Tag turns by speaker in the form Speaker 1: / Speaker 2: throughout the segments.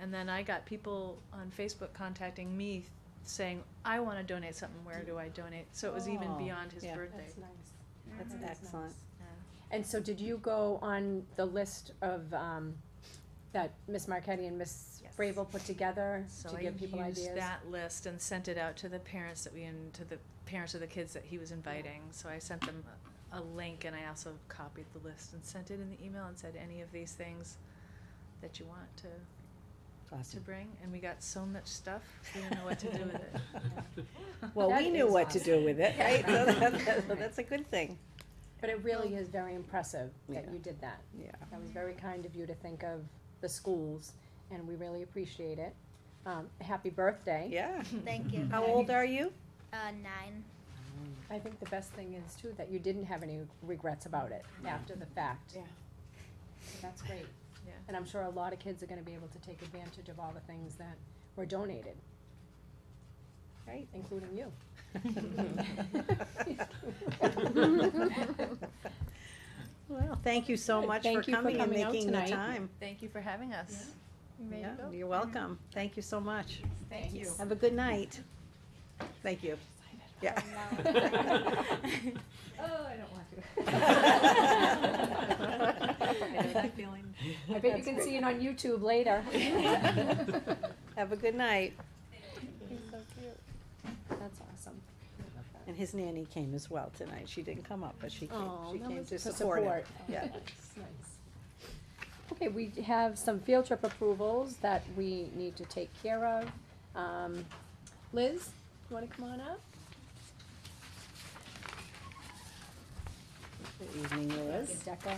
Speaker 1: and then I got people on Facebook contacting me saying, I wanna donate something, where do I donate? So it was even
Speaker 2: Oh,
Speaker 1: beyond his
Speaker 2: yeah.
Speaker 1: birthday.
Speaker 3: nice.
Speaker 2: That's
Speaker 4: Mm-hmm.
Speaker 3: That is
Speaker 2: excellent.
Speaker 3: nice.
Speaker 1: Yeah.
Speaker 5: And so did you go on the list of, um, that Miss Marquetti and Miss
Speaker 1: Yes.
Speaker 5: Brable put together
Speaker 1: So
Speaker 5: to
Speaker 1: I
Speaker 5: give people ideas?
Speaker 1: used that list and sent it out to the parents that we, and to the parents of the kids that he was inviting. So I sent them a a link and I also copied the list and sent it in the email and said, any of these things that you want to, to
Speaker 2: Awesome.
Speaker 1: bring? And we got so much stuff, we didn't know what to do with it.
Speaker 2: Well, we
Speaker 5: That
Speaker 2: knew
Speaker 5: is
Speaker 2: what to do with it, right? So that- that-
Speaker 1: Right.
Speaker 2: That's a good thing.
Speaker 5: But it really is very impressive that
Speaker 2: Yeah.
Speaker 5: you did that.
Speaker 2: Yeah.
Speaker 5: That was very kind of you to think of the schools, and we really appreciate it. Um, happy birthday.
Speaker 2: Yeah.
Speaker 4: Thank you.
Speaker 2: How old are you?
Speaker 4: Uh, nine.
Speaker 5: I think the best thing is too, that you didn't have any regrets about it after the fact.
Speaker 1: Yeah.
Speaker 5: So That's great.
Speaker 1: Yeah.
Speaker 5: And I'm sure a lot of kids are gonna be able to take advantage of all the things that were donated,
Speaker 2: Right.
Speaker 5: including you.
Speaker 2: Well, thank you so
Speaker 5: Good.
Speaker 2: much
Speaker 5: Thank
Speaker 2: for
Speaker 5: you for
Speaker 2: coming and
Speaker 5: coming out
Speaker 2: making the
Speaker 5: tonight.
Speaker 2: time.
Speaker 1: Thank you for having us. You ready to
Speaker 2: Yeah,
Speaker 1: go?
Speaker 2: You're welcome. Thank you so much.
Speaker 1: Thank you.
Speaker 2: Have a good night. Thank you. Yeah.
Speaker 1: Oh, I don't want to.
Speaker 5: I bet you can see it on YouTube later.
Speaker 2: Have a good night.
Speaker 5: That's awesome.
Speaker 2: And his nanny came as well tonight. She didn't come up, but she came,
Speaker 5: Oh,
Speaker 2: she
Speaker 5: that
Speaker 2: came
Speaker 5: was
Speaker 2: to
Speaker 5: for
Speaker 2: support him.
Speaker 5: support.
Speaker 2: Yeah.
Speaker 5: That's nice. Okay, we have some field trip approvals that we need to take care of. Um, Liz, you wanna come on up?
Speaker 2: Good evening, Liz.
Speaker 5: Decca.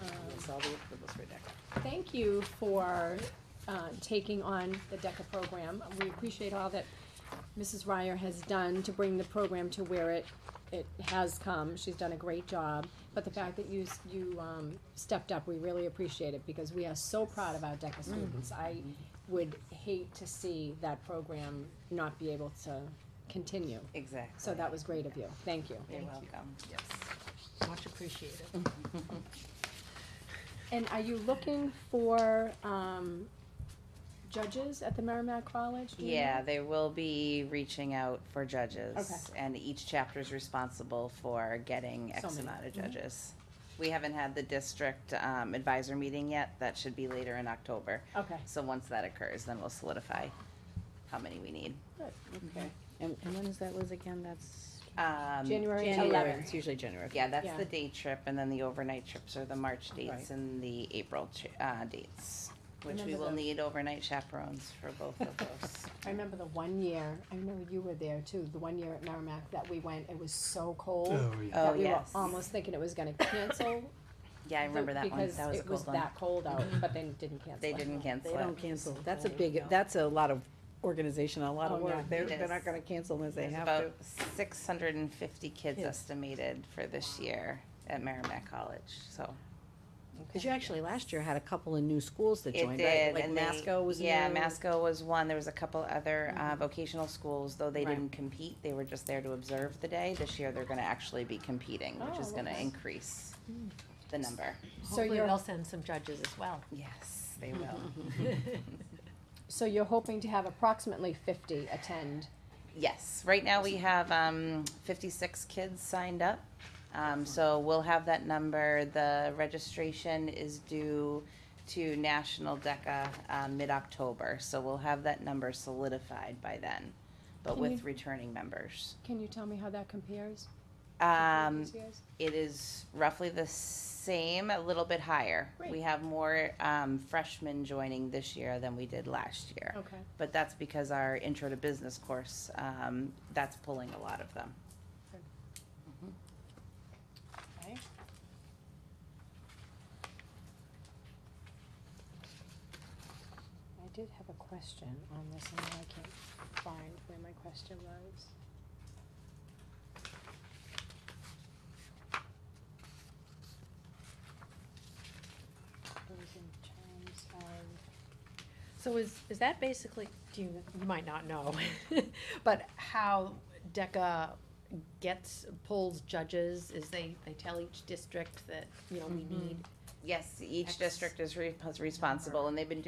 Speaker 2: That's all the approvals for Decca.
Speaker 5: Thank you for uh, taking on the DECA program. We appreciate all that Mrs. Ryer has done to bring the program to where it, it has come. She's done a great job. But the fact that you, s- you um, stepped up, we really appreciate it because we are so proud of our DECA students. I would hate to see that program not be able to continue.
Speaker 2: Exactly.
Speaker 5: So that was great of you. Thank you.
Speaker 2: You're welcome.
Speaker 6: Much appreciated.
Speaker 5: And are you looking for, um, judges at the Merrimack College? do you know?
Speaker 7: Yeah, they will be reaching out for
Speaker 5: Okay.
Speaker 7: judges, and each chapter is responsible for getting
Speaker 5: So
Speaker 7: X
Speaker 5: many. Mm-hmm.
Speaker 7: amount of judges. We haven't had the district um, advisor meeting yet, that should be later in October.
Speaker 5: Okay,
Speaker 7: So once that occurs, then we'll solidify how many we need.
Speaker 2: Okay. And, and when is that, Liz, again? That's
Speaker 7: Um,
Speaker 5: January
Speaker 2: January.
Speaker 5: eleventh.
Speaker 2: It's usually January.
Speaker 7: Yeah, that's
Speaker 5: Yeah.
Speaker 7: the day trip, and then the overnight trips are the March dates
Speaker 2: Right.
Speaker 7: and the April ch- uh, dates, which we
Speaker 5: Remember
Speaker 7: will
Speaker 5: the-
Speaker 7: need overnight chaperones for both of those.
Speaker 5: I remember the one year, I know you were there too, the one year at Merrimack that we went, it was so cold.
Speaker 7: Oh,
Speaker 5: That we were
Speaker 7: yes.
Speaker 5: almost thinking it was gonna cancel.
Speaker 7: Yeah, I remember that one,
Speaker 5: because
Speaker 7: that was a
Speaker 5: it was
Speaker 7: cold one.
Speaker 5: that cold out, but they didn't cancel
Speaker 7: They
Speaker 5: it.
Speaker 7: didn't cancel
Speaker 2: They
Speaker 7: it.
Speaker 2: don't cancel. That's a big, that's a lot of organization, a lot of
Speaker 5: Oh, yeah.
Speaker 2: work. They're,
Speaker 7: It
Speaker 2: they're
Speaker 7: is.
Speaker 2: not gonna cancel unless they
Speaker 7: There's
Speaker 2: have to.
Speaker 7: about six hundred and fifty kids
Speaker 2: Kids.
Speaker 7: estimated for this year at Merrimack College, so.
Speaker 2: Cause you actually last year had a couple of new schools that
Speaker 7: It
Speaker 2: joined,
Speaker 7: did.
Speaker 2: right? Like
Speaker 7: and they-
Speaker 2: Masco was new.
Speaker 7: Yeah, Masco was one. There was a couple other uh, vocational schools, though they
Speaker 2: Right.
Speaker 7: didn't compete. They were just there to observe the day. This year, they're gonna actually be competing, which
Speaker 5: Oh,
Speaker 7: is gonna
Speaker 5: okay.
Speaker 7: increase
Speaker 2: Hmm.
Speaker 7: the number.
Speaker 5: So
Speaker 6: Hopefully
Speaker 5: you're,
Speaker 6: they'll send some judges as well.
Speaker 7: Yes, they will.
Speaker 5: so you're hoping to have approximately fifty attend,
Speaker 7: Yes, right now we have um, 56 kids signed up. Um, so we'll have that number. The registration is due to National DECA uh, mid October. So we'll have that number solidified by then, but
Speaker 5: Can
Speaker 7: with
Speaker 5: you-
Speaker 7: returning members.
Speaker 5: can you tell me how that compares to
Speaker 7: Um,
Speaker 5: previous years?
Speaker 7: it is roughly the same, a little bit higher. We
Speaker 5: Great.
Speaker 7: have more um, freshmen joining this year than we did last year.
Speaker 5: Okay,
Speaker 7: But that's because our intro to business course, um, that's pulling a lot of them.
Speaker 5: okay. I did have a question on this, and now I can't find where my question was. It was in terms of.
Speaker 6: So is, is that basically, do you, you might not know, but how DECA gets, pulls judges is they, they tell
Speaker 5: Mm-hmm.
Speaker 6: each district that, you know, we need
Speaker 7: Yes, each
Speaker 6: Ex-
Speaker 7: district is re- responsible, and they've been